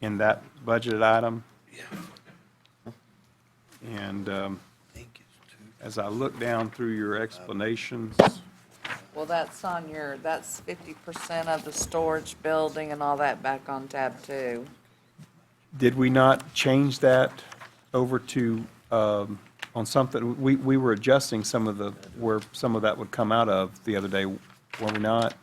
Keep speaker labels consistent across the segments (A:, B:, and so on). A: in that budgeted item. And um, as I look down through your explanations,
B: Well, that's on your, that's fifty percent of the storage building and all that back on tab two.
A: did we not change that over to, um, on something, we, we were adjusting some of the, where some of that would come out of the other day, were we not?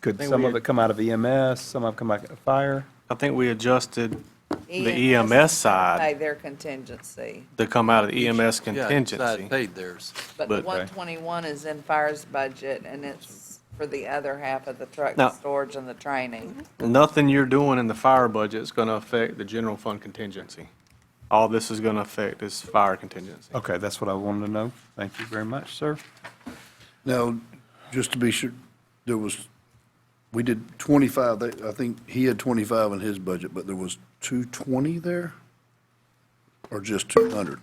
A: Could
C: think
A: some
C: we-
A: of it come out of EMS, some of it come out of fire?
C: I think we adjusted the
B: EMS
C: EMS side
B: Pay their contingency,
C: to come out of the EMS
D: Yeah, it's
C: contingency.
D: not paid theirs.
B: but the
C: But-
B: one twenty-one is in fire's budget and it's for the other half of the truck
C: Now-
B: storage and the training.
C: Nothing you're doing in the fire budget is going to affect the general fund contingency. All this is going to affect is fire contingency.
A: Okay, that's what I wanted to know. Thank you very much, sir.
E: Now, just to be sure, there was, we did 25, they- I think he had 25 in his budget, but there was 220 there? Or just 200?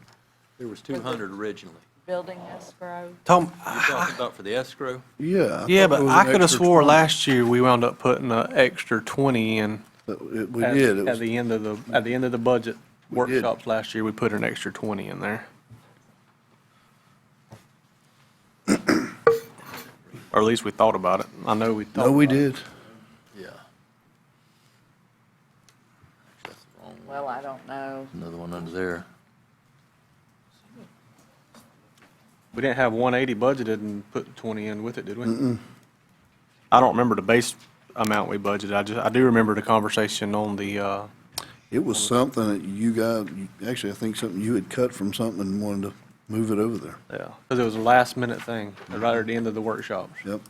D: There was 200 originally.
B: Building escrow,
C: Tom,
D: You're talking about for the escrow?
E: Yeah.
C: yeah,
E: thought
C: but
E: there was
C: I
E: an
C: could have
E: extra
C: swore
E: 20.
C: last year we wound up putting an extra 20 in.
E: But Uh, it- We
C: at-
E: did. It
C: At
E: was-
C: the end of the, at the end of the budget
E: We did.
C: workshops last year, we put an extra 20 in there. Or at least we thought about it. I know we thought.
E: No, we
C: about it.
E: did.
D: Yeah. That's the wrong one.
B: well, I don't know.
D: Another one under there.
C: We didn't have 180 budgeted and put 20 in with it, did we? I don't remember the base amount we budgeted. I just, I do remember the conversation on the, uh,
E: It was something that you guys, actually, I think something you had cut from something and wanted to move it over there.
C: yeah, because it was a last minute thing, right at the end of the workshops.
E: Yep.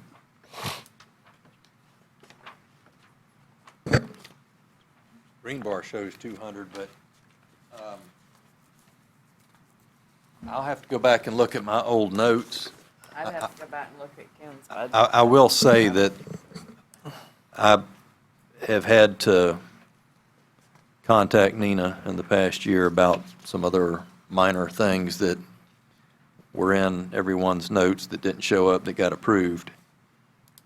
D: Green bar shows 200, but um, I'll have to go back and look at my old notes.
B: I'd have to go back and look at Ken's budget.
D: I, I will say that I have had to contact Nina in the past year about some other minor things that were in everyone's notes that didn't show up that got approved.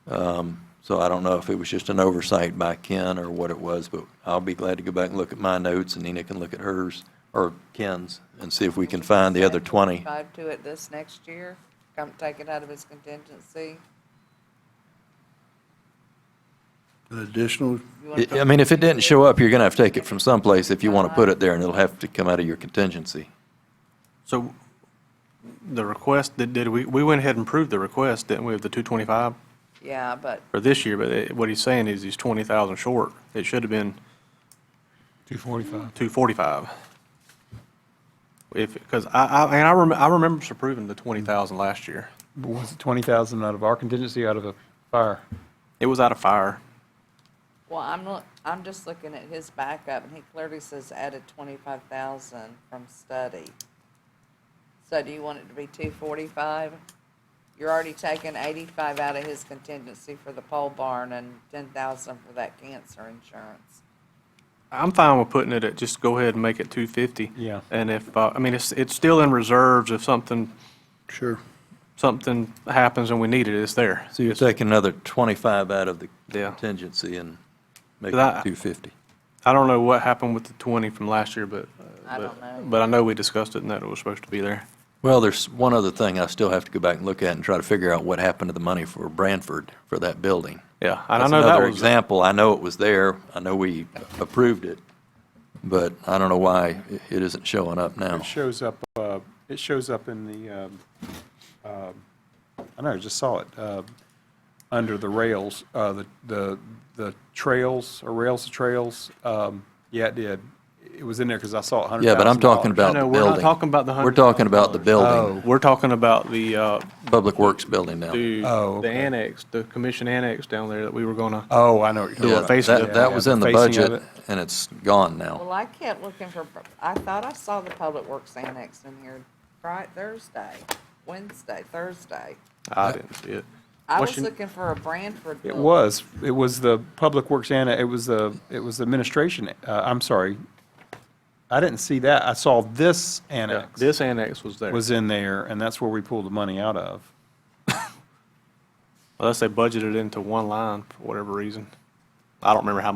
D: Um, So I don't know if it was just an oversight by Ken or what it was, but I'll be glad to go back and look at my notes and Nina can look at hers or Ken's and see if we can find the other 20.
B: Five to it this next year, come take it out of his contingency.
E: An additional,
C: E
B: You wanna
D: I I mean, if it didn't show up, you're going to have to take it from someplace if you want to put it there, and it'll have to come out of your contingency.
C: So the request, did, did we, we went ahead and approved the request, didn't we, of the 225
B: Yeah, but
C: for this year? But it- what he's saying is he's 20,000 short. It should have been
F: 245.
C: 245. If, because I, I, and I remember, I remember us approving the 20,000 last year.
A: But Was it 20,000 out of our contingency, out of a fire?
C: It was out of fire.
B: Well, I'm look, I'm just looking at his backup, and he clearly says added twenty-five thousand from study. So do you want it to be two forty-five? You're already taking eighty-five out of his contingency for the pole barn and ten thousand for that cancer insurance.
C: I'm fine with putting it at, just go ahead and make it 250.
A: Yeah.
C: And if, uh, I mean, it's, it's still in reserves if something,
E: sure.
C: something happens and we need it, it's there.
D: So you're taking another 25 out of the
C: Yeah.
D: contingency and making
C: That-
D: it 250.
C: I don't know what happened with the 20 from last year, but. uh,
B: I
C: but-
B: don't know.
C: But I know we discussed it and that it was supposed to be there.
D: Well, there's one other thing I still have to go back and look at and try to figure out what happened to the money for Branford for that building.
C: Yeah, and I
D: That's
C: know that
D: Another
C: was,
D: example, I know it was there, I know we approved it, but I don't know why it- it isn't showing up now.
A: It shows up, uh, it shows up in the, um, um, I don't know, I just saw it, uh, under the rails, uh, the, the the trails, or rails to trails. Um, Yeah, it did. It was in there because I saw $100,000.
D: Yeah, but I'm talking about the
C: No,
D: building.
C: we're not talking about the
D: We're talking about the building,
C: we're talking about the, uh,
D: Public Works building now.
C: the
A: Oh,
C: the
A: okay.
C: annex, the commission annex down there that we were gonna.
A: Oh, I know what you're talking
D: Yeah,
A: about.
C: face of
D: that,
C: it.
D: that
A: Yeah,
D: was
A: the
D: in the
A: facing of
D: budget,
A: it.
D: and it's gone now.
B: Well, I kept looking for, I thought I saw the public works annex in here, right, Thursday, Wednesday, Thursday.
C: I didn't see it.
B: I
C: What's
B: was
C: your-
B: looking for a Branford.
A: It
B: building.
A: was, it was the Public Works and, it was the, it was the administration, uh, I'm sorry. I didn't see that. I saw this
C: Yeah,
A: annex.
C: This annex was there.
A: was in there, and that's where we pulled the money out of.
C: Unless they budgeted into one line for whatever reason. I don't remember how